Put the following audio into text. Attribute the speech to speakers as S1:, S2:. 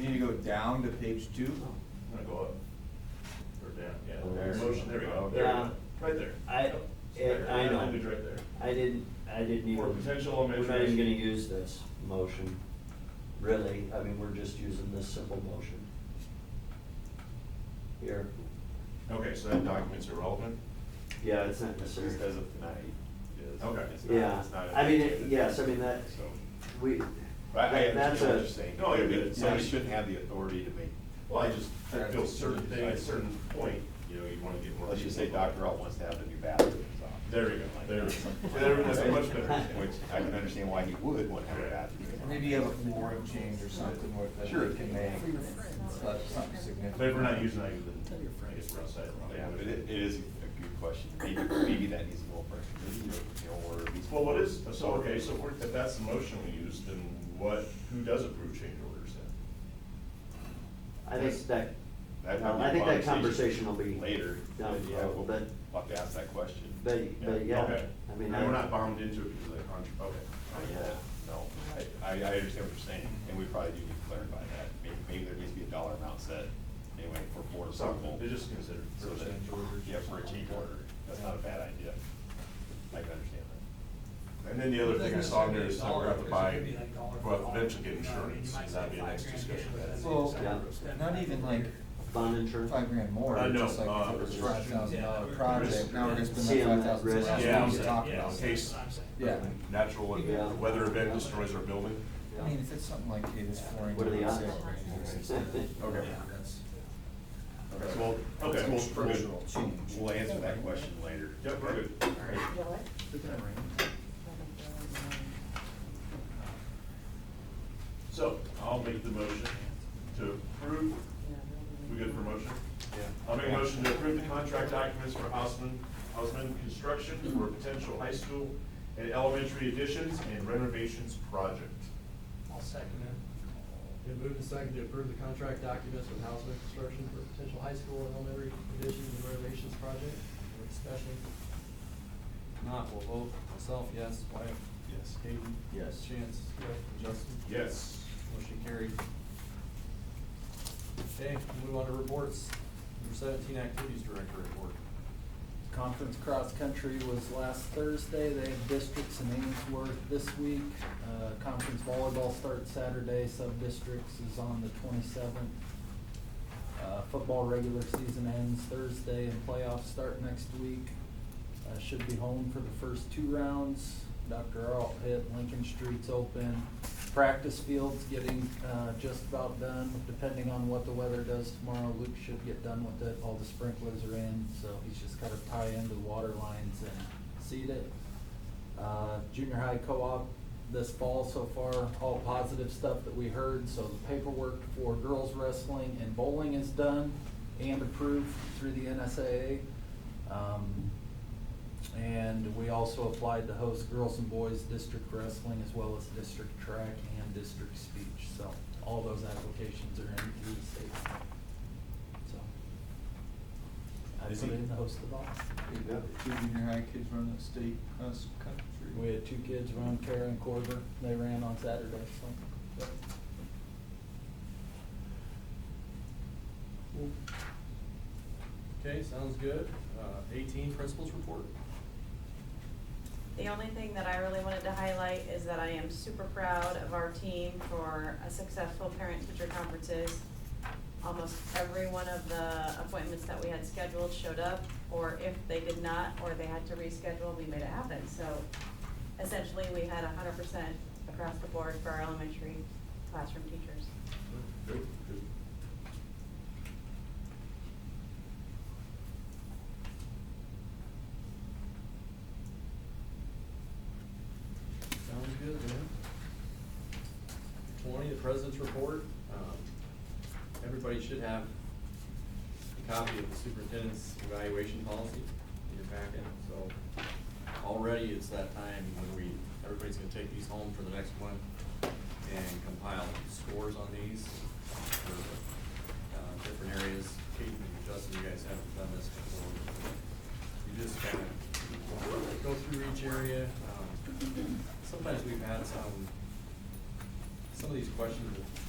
S1: You need to go down to page two.
S2: I'm gonna go up. Or down, yeah.
S3: Oh,
S2: There's
S3: there.
S2: Motion, there we go,
S3: Okay.
S2: there we
S4: Yeah.
S2: go, right there.
S4: Um, I-
S2: Yep. So
S4: yeah,
S2: there,
S4: I
S2: that
S4: know.
S2: language right there.
S4: I didn't, I didn't even.
S2: For potential
S4: We're not even
S2: measures.
S4: gonna use this motion, really, I mean, we're just using this simple motion. Here,
S2: Okay, so that document's irrelevant?
S4: yeah, it's not
S3: It's
S4: necessary.
S3: just as of tonight. is-
S2: Okay.
S3: it's not-
S4: Yeah,
S3: it's not a-
S4: I mean, it- yes, I mean, that,
S3: So,
S4: we,
S3: I, I
S4: That's
S3: understand what
S4: a-
S3: you're saying.
S2: No, you're good.
S3: Somebody shouldn't have the authority to make,
S2: Well, I just, I feel certain thing, at a certain point, you know, you wanna get more.
S3: let's just say
S2: people.
S3: Dr. Alt wants to have the new bathroom.
S2: There we go, there we go. There, that's a much better.
S3: Which I can understand why he would want to have a bathroom.
S1: Maybe you have a flooring change or something where that
S3: Sure.
S1: you can make, but something significant.
S2: But if we're not using that, then I guess we're outside. the
S3: Yeah, but
S2: language.
S3: it, it is a good question. Maybe, maybe that needs a little pressure, maybe, you know, or at least.
S2: Well, what is, so, okay, so if we're- if that's the motion we use, then what, who does approve change orders then?
S4: I think that,
S3: That might be
S4: I think
S3: a
S4: that conversation will be.
S3: Later.
S4: down the
S3: Yeah,
S4: road,
S3: we'll
S4: but-
S3: I'll have to ask that question.
S4: But, but yeah,
S2: Okay.
S4: I mean.
S2: And
S4: I-
S2: we're not bound into it because of the contract, okay.
S3: Oh, Yeah, no, I, I I understand what you're saying, and we probably do need to clarify that. Maybe, maybe there needs to be a dollar amount set, anyway, for board approval.
S2: Something, they just consider.
S3: So that-
S1: Change orders.
S3: Yeah, for a change order, that's not a bad idea. I can understand
S2: And then the other thing I saw in there is that we're gonna have to buy,
S5: It could be like dollar for
S2: well,
S5: dollar.
S2: eventually get
S5: You know,
S2: insurance,
S5: you might
S2: and that'd be a
S5: spend
S2: next
S5: five
S2: discussion.
S5: grand,
S2: That's
S5: but
S1: Well,
S2: exactly what it's-
S5: yeah.
S1: not even like
S4: Bond insurance.
S1: five grand more,
S2: I know,
S1: just like if
S2: uh,
S1: it was
S2: it's-
S1: five thousand dollar
S5: yeah,
S1: project,
S5: risk-
S1: now we're gonna
S4: See,
S1: spend
S4: I'm
S1: like
S4: at
S1: five thousand
S4: risk.
S1: dollars.
S2: Yeah,
S1: We need to talk
S5: yeah,
S1: about.
S2: in
S1: it.
S2: case,
S5: that's what I'm saying.
S1: Yeah,
S2: natural,
S1: Yeah.
S2: event- weather event destroys our building.
S4: Yeah.
S1: I mean, if it's something like, hey, this flooring.
S4: What are the
S1: doesn't
S4: odds?
S1: sit right here, it's like,
S2: Okay.
S1: yeah, that's-
S3: that. So, we'll-
S2: Okay.
S3: so we'll-
S2: Structural
S1: change.
S3: We'll answer that question later.
S2: Yep, we're good.
S3: All right.
S6: You know what?
S2: So, I'll make the motion to approve, we good for motion? I'll make a motion to approve the contract documents for Hausman, Hausman Construction for potential high school and elementary additions and renovations project.
S5: I'll second it. It moved and seconded to approve the contract documents with Housman Construction for potential high school and elementary additions and renovations project. Any discussion? If Not, we'll vote myself, yes, Wyatt.
S2: Yes.
S5: Hayden.
S1: Yes.
S5: Chance. and Justin.
S2: Yes.
S5: Motion carried. Okay, move on to reports. Number seventeen, activities director report.
S7: Conference cross-country was last Thursday. They have districts in Ainsworth this week. Uh, Conference volleyball starts Saturday. Sub-districts is on the twenty-seventh. Uh, Football regular season ends Thursday and playoffs start next week. Uh, Should be home for the first two rounds. Dr. Earl hit, Lincoln Street's open. Practice field's getting uh, just about done, depending on what the weather does tomorrow. Luke should get done with it, all the sprinklers are in, so he's just gotta tie into the water lines and seed it. Uh, Junior high co-op this fall so far, all positive stuff that we heard, so the paperwork for girls wrestling and bowling is done and approved through the NSAA. Um, and we also applied to host girls and boys district wrestling as well as district track and district speech. So all those applications are in through the state. So. I
S2: Is
S7: put
S2: he-
S7: in the host of all.
S1: Two junior high kids run the state cross country.
S7: We had two kids run, Kara and Corbin. They ran on Saturday, so.
S5: Okay, sounds good. Uh, eighteen, principals report.
S6: The only thing that I really wanted to highlight is that I am super proud of our team for a successful parent-teacher conferences. Almost every one of the appointments that we had scheduled showed up, or if they did not, or they had to reschedule, we made it happen. So essentially, we had hundred percent across the board for our elementary classroom teachers.
S2: Good, good.
S5: Sounds good, man. Twenty, the president's report. Um, Everybody should have a copy of the superintendent's evaluation policy in your packet, so already it's that time when we, everybody's gonna take these home for the next one and compile scores on these for, uh, different areas. Kate and Justin, you guys haven't done this before. You just kind of go through each area, um, sometimes we've had some, some of these questions